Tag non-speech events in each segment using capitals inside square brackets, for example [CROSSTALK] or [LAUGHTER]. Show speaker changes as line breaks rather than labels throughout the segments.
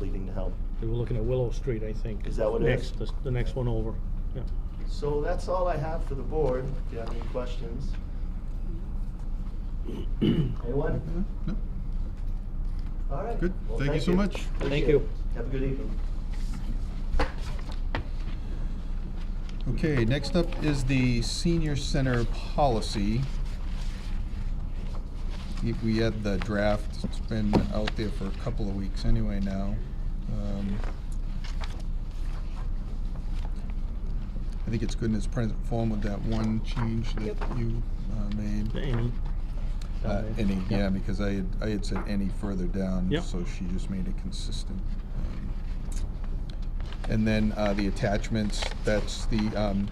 leading uh, to help.
They were looking at Willow Street, I think.
Is that what it is?
Next, the, the next one over, yeah.
So that's all I have for the board. Do you have any questions? Anyone?
No,
All right.
Good.
Well,
Thank you so much.
Appreciate
Thank
it.
you.
Have a good evening.
Okay, next up is the senior center policy. I think we had the draft, it's been out there for a couple of weeks anyway now. Um, I think it's good in its present form with that one change that
Yep.
you uh, made.
Any?
Uh, Any, yeah, because I had, I had said any further down,
Yep.
so she just made it consistent. Um, And then uh, the attachments, that's the um,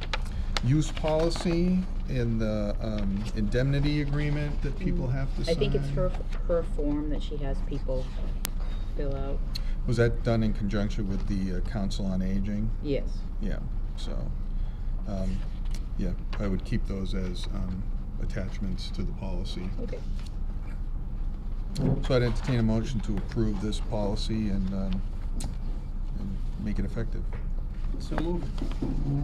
use policy and the um, indemnity agreement that people have to sign.
I think it's her, her form that she has people fill out.
Was that done in conjunction with the uh, Council on Aging?
Yes.
Yeah, so, um, yeah, I would keep those as um, attachments to the policy.
Okay.
So I'd entertain a motion to approve this policy and, um, and make it effective.
So moved.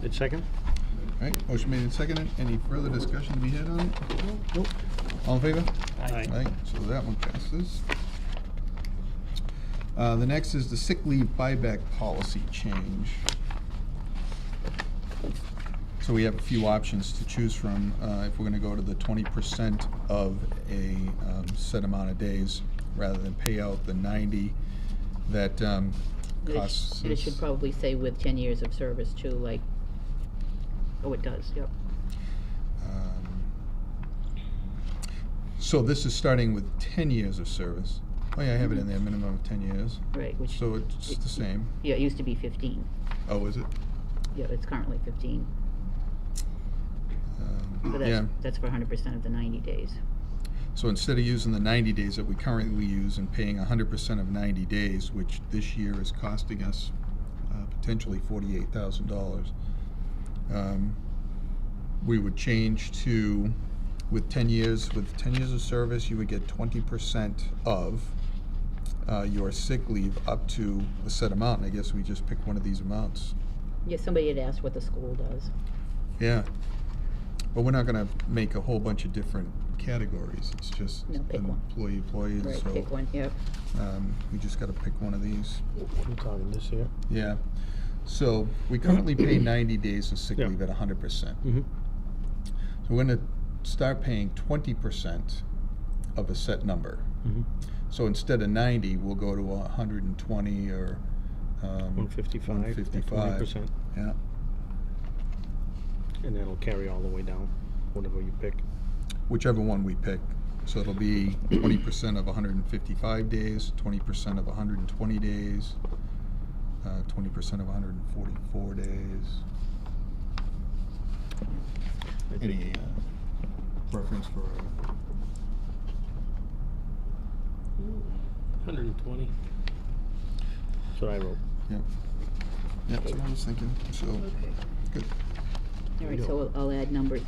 It's second?
All right, motion made and seconded. Any further discussion to be had on it?
Nope.
All in favor?
Aye.
so that one passes. Uh, the next is the sick leave buyback policy change. So we have a few options to choose from, uh, if we're gonna go to the twenty percent of a, um, set amount of days, rather than pay out the ninety that, um,
And it sh-
costs.
and it should
us-
probably say with ten years of service too, like, oh, it does, yep.
Um, So this is starting with ten years of service. Oh yeah, I have it in there, minimum of ten years.
Right, which.
So it's the same.
Yeah, it used to be fifteen.
Oh, is it?
Yeah, it's currently fifteen.
Um,
So
Yeah,
that's, that's for hundred percent of the ninety days.
so instead of using the ninety days that we currently use and paying hundred percent of ninety days, which this year is costing us uh, potentially forty-eight thousand dollars, um, we would change to, with ten years, with ten years of service, you would get twenty percent of uh, your sick leave up to a set amount, and I guess we just pick one of these amounts.
Yeah, somebody had asked what the school does.
Yeah. But we're not gonna make a whole bunch of different categories, it's just
No,
an
pick one.
employee, employee,
Right,
so,
pick one, yep.
um, we just gotta pick one of these.
I'm talking this here.
Yeah, so we
[COUGHS]
currently pay ninety days of sick
Yeah.
leave at hundred percent.
Mm-hmm.
So we're gonna start paying twenty percent of a set number.
Mm-hmm.
So instead of ninety, we'll go to hundred and twenty or, um.
One fifty-five.
One fifty-five.
Twenty percent,
Yeah,
and that'll carry all the way down, whatever you pick.
whichever one we pick. So it'll be twenty percent of hundred and fifty-five days, twenty percent of hundred and twenty days, uh, twenty percent of hundred and forty-four days.
I think-
Any uh, preference for, uh,
Hundred and twenty.
That's what I wrote.
yeah. Yeah, that's what I was thinking, so, good.
All right, so I'll I'll add number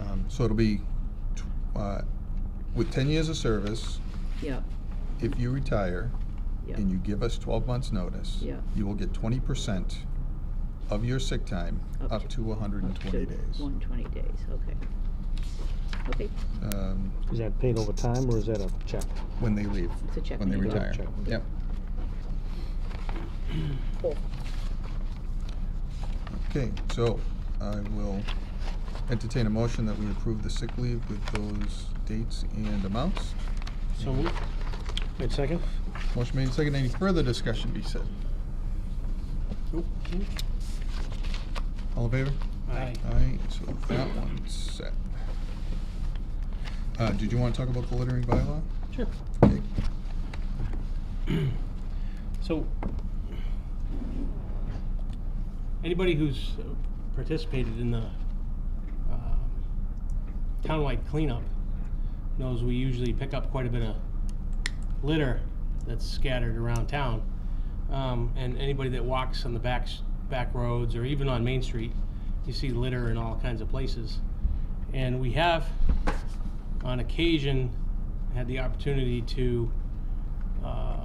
Um, so it'll be, tw- uh, with ten years of service,
Yep,
if you retire
yep,
and you give us twelve months' notice,
Yeah.
you will get twenty percent of your sick time
Up
up
to-
to hundred and twenty days.
One twenty days, okay. Okay,
um,
Is that paid over time, or is that a check?
when they leave,
it's a check.
when they
maybe.
Yeah,
retire.
check.
Yep.
Cool.
Okay, so I will entertain a motion that we approve the sick leave with those dates and amounts.
So moved. Wait, second?
Motion made and seconded. Any further discussion be said?
Nope.
All in favor?
Aye.
Aye, so that one's set. Uh, did you want to talk about the littering bylaw?
Sure.
Okay.
So, anybody who's uh, participated in the um, townwide cleanup knows we usually pick up quite a bit of litter that's scattered around town. Um, and anybody that walks on the backs, back roads or even on Main Street, you see litter in all kinds of places. And we have, on occasion, had the opportunity to uh,